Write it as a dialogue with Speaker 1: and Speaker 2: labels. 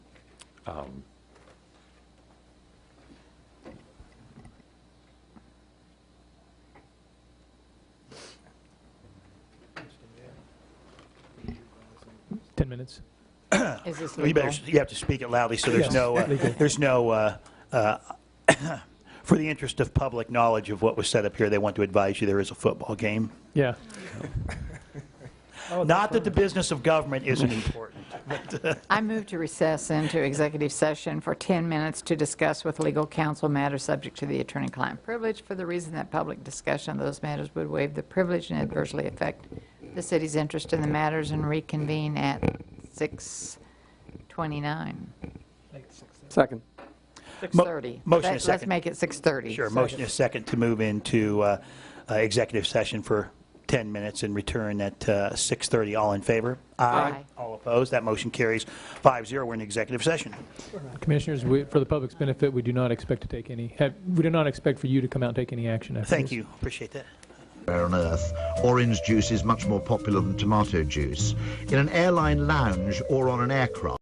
Speaker 1: um,
Speaker 2: Ten minutes.
Speaker 3: Is this
Speaker 4: Well, You better,
Speaker 3: legal?
Speaker 4: you have to speak it loudly, so there's
Speaker 2: Yes,
Speaker 4: no, uh,
Speaker 2: legal.
Speaker 4: there's no, uh, uh, for the interest of public knowledge of what was set up here, they want to advise you there is a football game.
Speaker 2: Yeah. Oh,
Speaker 4: Not that the business of government isn't important.
Speaker 3: I move to recess into executive session for 10 minutes to discuss with legal counsel matters subject to the attorney-client privilege for the reason that public discussion of those matters would waive the privilege and adversely affect the city's interest in the matters and reconvene at 6:29.
Speaker 5: Second.
Speaker 3: 6:30.
Speaker 4: motion
Speaker 3: Let-
Speaker 4: is second.
Speaker 3: Let's make it 6:30.
Speaker 4: Sure, motion is second to move into uh, uh, executive session for 10 minutes and return at uh, 6:30. All in favor?
Speaker 3: Aye.
Speaker 4: All opposed? That motion carries 5-0. We're in executive session.
Speaker 2: Commissioners, we, for the public's benefit, we do not expect to take any, have, we do not expect for you to come out and take any action after
Speaker 4: Thank
Speaker 2: this.
Speaker 4: you, appreciate that.
Speaker 6: everywhere on Earth, orange juice is much more popular than tomato juice. In an airline lounge or on an aircraft,